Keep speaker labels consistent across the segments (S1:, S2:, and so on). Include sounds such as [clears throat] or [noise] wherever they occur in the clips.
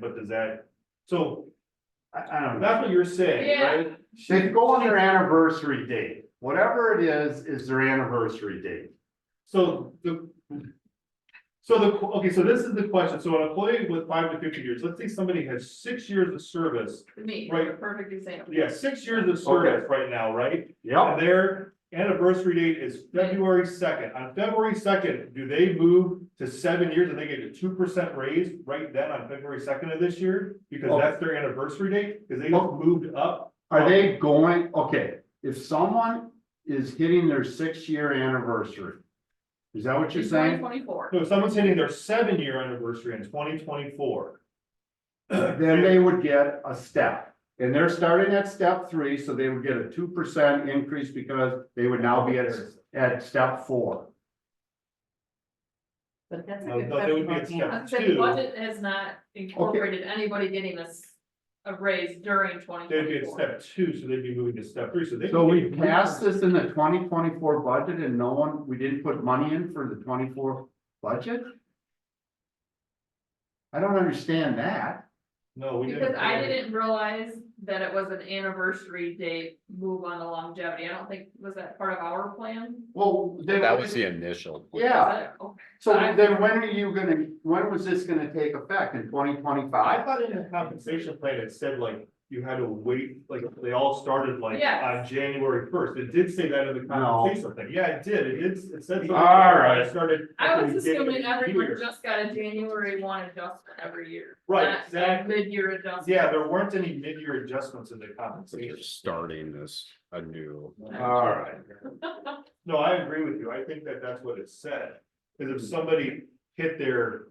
S1: but does that, so. I, I don't know, that's what you're saying,
S2: Yeah.
S1: right? They could go on their anniversary date, whatever it is, is their anniversary date. So the. So the, okay, so this is the question, so an employee with five to fifty years, let's say somebody has six years of service,
S2: Me,
S1: Right.
S2: a perfect example.
S1: yeah, six years of service right now, right?
S3: Yep,
S1: And their anniversary date is February second. On February second, do they move to seven years and they get a two percent raise right then on February second of this year? Because
S3: Oh.
S1: that's their anniversary date, because they just moved up.
S3: are they going, okay, if someone is hitting their six-year anniversary. Is that what you're saying?
S2: Twenty-four.
S1: So if someone's hitting their seven-year anniversary in twenty twenty-four.
S3: [clears throat] Then they would get a step, and they're starting at step three, so they would get a two percent increase because they would now be at, at step four.
S4: But that's a
S1: No,
S4: good
S1: no, they would be
S4: question.
S1: accepted.
S2: I said the
S1: Two.
S2: budget has not incorporated anybody getting us a raise during twenty
S1: They'd be at
S2: twenty-four.
S1: step two, so they'd be moving to step three, so they.
S3: So we passed this in the twenty twenty-four budget and no one, we didn't put money in for the twenty-four budget? I don't understand that.
S1: No, we didn't.
S2: Because I didn't realize that it was an anniversary date move on the longevity. I don't think, was that part of our plan?
S3: Well, then.
S5: That was the initial.
S3: Yeah,
S2: Was it? Oh,
S3: so then when are you gonna, when was this gonna take effect? In twenty
S1: I
S3: twenty-five?
S1: thought in the compensation plan, it said like, you had to wait, like, they all started like on
S2: Yes.
S1: January first, it did say that in the
S3: No.
S1: compensation thing, yeah, it did, it did, it said. something
S3: All
S1: about it
S3: right.
S1: Started. at
S2: I
S1: the
S2: was
S1: beginning
S2: assuming
S1: of the
S2: everyone
S1: year.
S2: just got a January one adjustment every year.
S1: Right,
S2: not a
S1: exactly.
S2: Mid-year adjustment.
S1: Yeah, there weren't any mid-year adjustments in the
S5: So you're
S1: compensation,
S5: starting this anew.
S3: Alright.
S1: no, I agree with you, I think that that's what it said, cause if somebody hit their.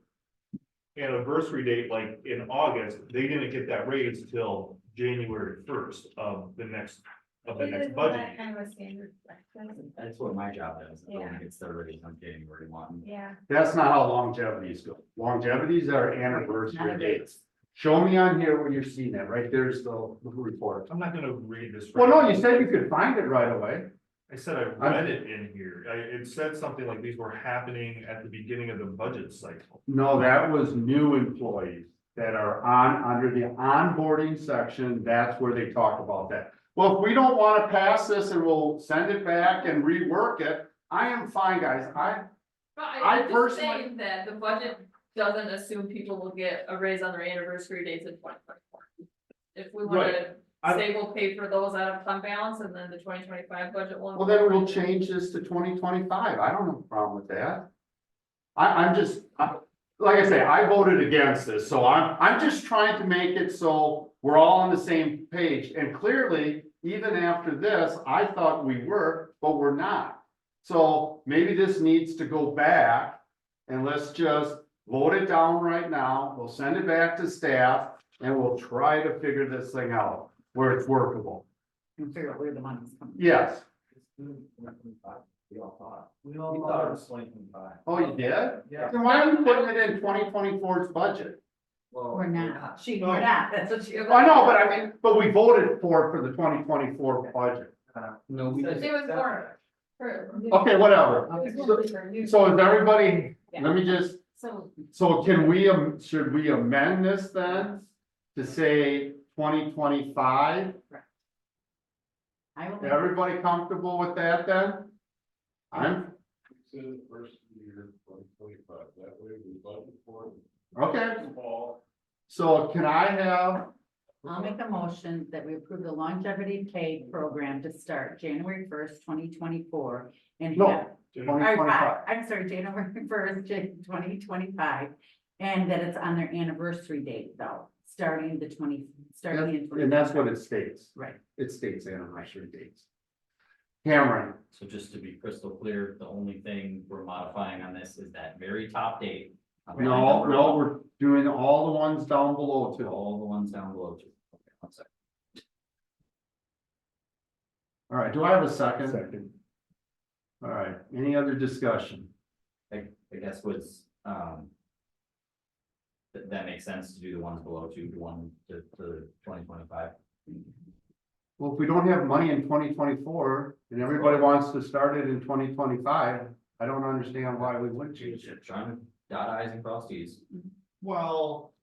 S1: Anniversary date like in August, they didn't get that raise till January first of the next, of the next budget. year.
S4: Kind of a standard practice,
S6: That's what my job is,
S4: Yeah.
S6: I'm gets their raise on January one.
S4: yeah.
S3: That's not how longevities go. Longevities are anniversary dates. Show me on here where you're seeing it, right? There's the the report.
S1: I'm not gonna read this.
S3: Well, no,
S1: right
S3: you
S1: now.
S3: said you could find it right away.
S1: I said I read it in here, I, it said something like these were happening at the beginning of the budget cycle.
S3: No, that was new employees that are on, under the onboarding section, that's where they talk about that. Well, if we don't wanna pass this and we'll send it back and rework it, I am fine, guys, I,
S2: But
S3: I
S2: I, I'm just
S3: personally-
S2: saying that the budget doesn't assume people will get a raise on their anniversary dates in twenty twenty-four. If we wanna
S1: I-
S2: say we'll pay for those out of fund balance and then the twenty twenty-five budget will.
S3: well, then we'll
S2: incorporate
S3: change this to twenty twenty-five, I don't have a problem with that. I, I'm just, I, like I say, I voted against this, so I'm, I'm just trying to make it so we're all on the same page, and clearly, even after this, I thought we were, but we're not. So maybe this needs to go back, and let's just vote it down right now, we'll send it back to staff, and we'll try to figure this thing out, where it's workable.
S4: And figure out where the money's coming.
S3: Yes,
S6: We all thought.
S7: We
S6: We thought it was twenty twenty-five.
S3: oh, you did?
S7: Yeah.
S3: Then why are you putting it in 2024's budget?
S6: Well.
S4: We're not, she, we're not, that's what she.
S3: I know, but I mean, but we voted for, it for the twenty twenty-four budget.
S6: Uh, No, we.
S2: It
S6: didn't
S2: was
S6: accept
S2: more-
S6: that.
S2: for-
S3: Okay, whatever.
S4: It's gonna be her new-
S3: So is everybody, let me just,
S4: So,
S3: so can we, am- should we amend this then? To say twenty twenty-five?
S4: I will.
S3: Everybody comfortable with that then? I'm,
S7: Say the first year, twenty twenty-five, that way we budget for it.
S3: okay.
S7: Fall.
S3: So can I have,
S4: I'll make a motion that we approve the longevity pay program to start January first, twenty twenty-four. And
S3: No,
S4: have,
S3: twenty
S4: or
S3: twenty-five?
S4: five, I'm sorry, January [laughs] first, twenty twenty-five. And that it's on their anniversary date though, starting the twenty, starting in.
S3: And that's what it states.
S4: Right.
S3: It states anniversary dates. Cameron,
S6: So just to be crystal clear, the only thing we're modifying on this is that very top date. on line
S3: no,
S6: number
S3: no,
S6: one,
S3: we're doing all the ones down below
S6: to
S3: too.
S6: All the ones down below. too. Okay, one sec.
S3: All right, do I have a second? Second. All right, any other discussion?
S6: I, I guess was, um. That, that makes sense to do the ones below two, the one to, to twenty twenty-five.
S3: Well, if we don't have money in twenty twenty-four and everybody wants to start it in twenty twenty-five, I don't understand why we would change it.
S6: Trying to dot i's and cross t's.
S1: Well,